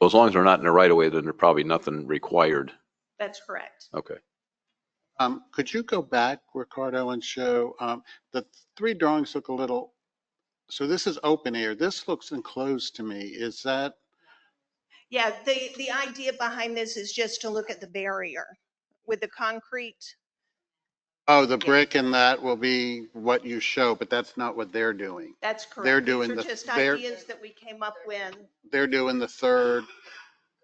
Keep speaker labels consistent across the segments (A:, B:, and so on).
A: Well, as long as they're not in the right of way, then there's probably nothing required.
B: That's correct.
A: Okay.
C: Um, could you go back, Ricardo, and show, um, the three drawings look a little, so this is open air. This looks enclosed to me. Is that,
B: Yeah, the, the idea behind this is just to look at the barrier with the concrete.
C: oh, the
B: Yeah.
C: brick and that will be what you show, but that's not what they're doing.
B: That's correct.
C: doing
B: These are
C: the-
B: just
C: they're-
B: ideas that we came up with.
C: They're doing the third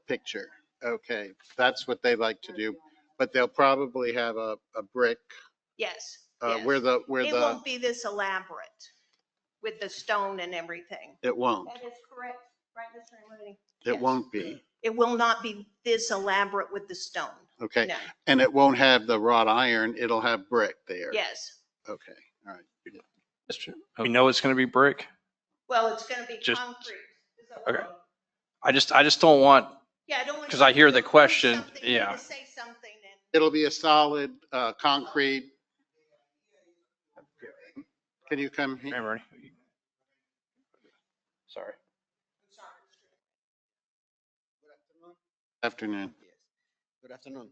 C: picture. Okay, that's what they like to do, but they'll probably have a, a brick,
B: Yes.
C: uh,
B: yes.
C: where the, where
B: It
C: the,
B: won't be this elaborate with the stone and everything.
C: it won't,
B: is correct, right, Mr. Mooney?
C: it
B: Yes.
C: won't be.
B: It will not be this elaborate with the stone.
C: Okay,
B: No,
C: and it won't have the wrought iron. It'll have brick there.
B: yes.
C: Okay, all right.
D: We know it's going to be brick.
B: Well, it's going to be
D: Just-
B: concrete.
D: Okay. I just, I just don't want,
B: Yeah, I don't want.
D: 'Cause I hear the
B: don't want
D: question,
B: something- you
D: yeah.
B: to Say something and
C: It'll be a solid, uh, concrete. Can you come
D: Hey,
C: here?
D: Bernie. Sorry.
C: Afternoon.
E: Yes. Good afternoon.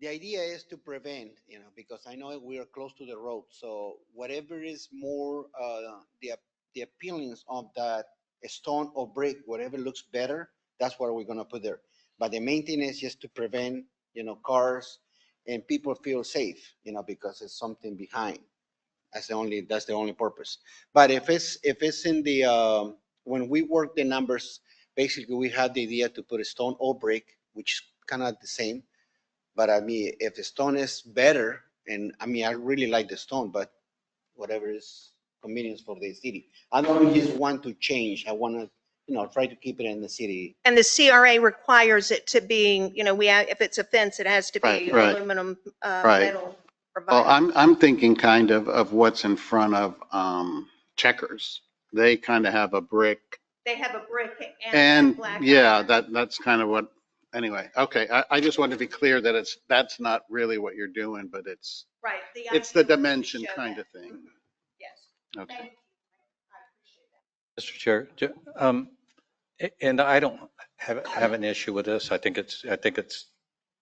E: The idea is to prevent, you know, because I know we are close to the road, so whatever is more, uh, the, ap- the appearance of that stone or brick, whatever looks better, that's what we're gonna put there. But the maintenance is just to prevent, you know, cars and people feel safe, you know, because it's something behind. That's the only, that's the only purpose. But if it's, if it's in the, um, when we work the numbers, basically we had the idea to put a stone or brick, which is kind of the same. But I mean, if the stone is better, and I mean, I really like the stone, but whatever is convenience for the city. I don't just want to change. I want to, you know, try to keep it in the city.
B: And the CRA requires it to be, you know, we, ha- if it's a fence, it has to be
C: Right, right.
B: aluminum, uh,
C: Right.
B: metal. or
C: Well,
B: vinyl.
C: I'm, I'm thinking kind of, of what's in front of, um, checkers. They kind of have a brick
B: They have a brick and
C: and,
B: black.
C: yeah,
B: iron.
C: that, that's kind of what, anyway, okay. I, I just wanted to be clear that it's, that's not really what you're doing, but it's,
B: Right.
C: it's the
B: idea was to
C: dimension
B: show
C: kind
B: that. Mm-hmm.
C: of thing.
B: Yes.
C: Okay.
B: Thank you. I appreciate that.
F: Mr. Chair, ju- um, a- and I don't have, have an issue with this. I think it's, I think it's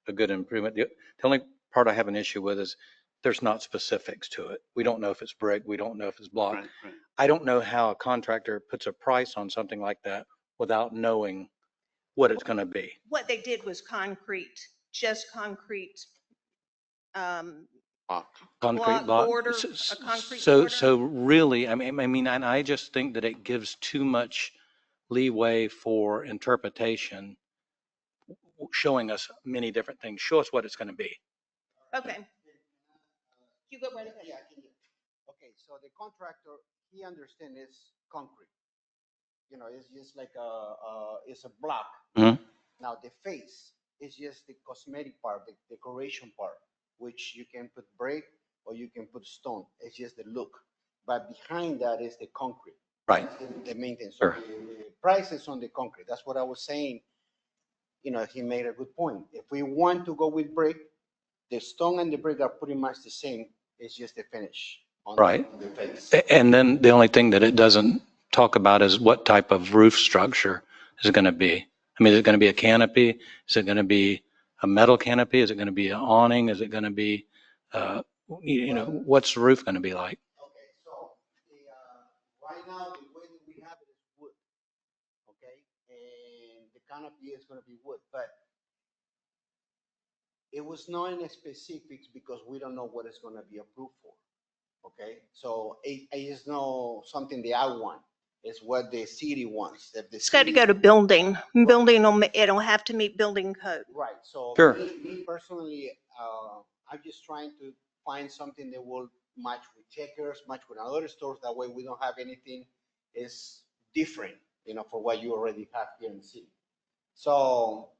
F: a good improvement. The the only part I have an issue with is there's not specifics to it. We don't know if it's brick, we don't know if it's block.
C: Right, right.
F: I don't know how a contractor puts a price on something like that without knowing what it's going to be.
B: What they did was concrete, just concrete. Um,
F: Concrete
B: Block
F: block.
B: border,
F: S-
B: a
F: s-
B: concrete
F: So,
B: border.
F: so really, I mean, I mean, and I just think that it gives too much leeway for interpretation, w- showing us many different things. Show us what it's going to be.
B: Okay. You go right ahead.
E: Yeah, I can hear. Okay, so the contractor, he understands it's concrete. You know, it's just like a, uh, it's a block.
F: Mhm.
E: Now the face is just the cosmetic part, the decoration part, which you can put brick or you can put stone. It's just the look. But behind that is the concrete.
F: Right.
E: the- The maintenance.
F: Sure.
E: Prices on the concrete. That's what I was saying. You know, he made a good point. If we want to go with brick, the stone and the brick are pretty much the same. It's just the finish. on the-
F: Right.
E: on The face.
F: A- And then the only thing that it doesn't talk about is what type of roof structure is it going to be? I mean, is it going to be a canopy? Is it going to be a metal canopy? Is it going to be an awning? Is it going to be, uh, you you know, what's the roof going to be like?
E: Okay, so the, uh, right now, the way that we have it is wood. Okay, and the canopy is gonna be wood, but it was not in specifics because we don't know what it's gonna be approved for. Okay, so it, it is not something that I want. It's what the city wants. If the
B: It's got to
E: city-
B: go to building. Building, will ma- it'll have to meet building code.
E: Right, so.
F: Sure.
E: Me me personally, uh, I'm just trying to find something that will match with Checkers, match with other stores. That way we don't have anything is different, you know, for what you already have here in the city. So,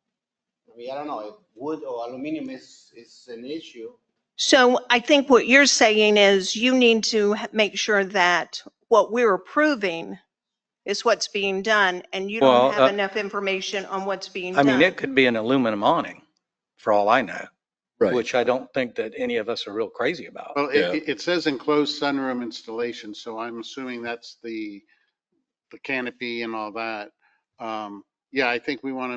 E: I mean, I don't know, if wood or aluminum is, is an issue.
B: So I think what you're saying is you need to ha- make sure that what we're approving is what's being done and you
F: Well,
B: don't have
F: uh,
B: enough information on what's being
F: I
B: done.
F: mean, it could be an aluminum awning, for all I know,
A: Right.
F: which I don't think that any of us are real crazy about.
C: Well,
A: Yeah.
C: it- it, it says enclosed sunroom installation, so I'm assuming that's the, the canopy and all that. Um, Yeah, I think we want to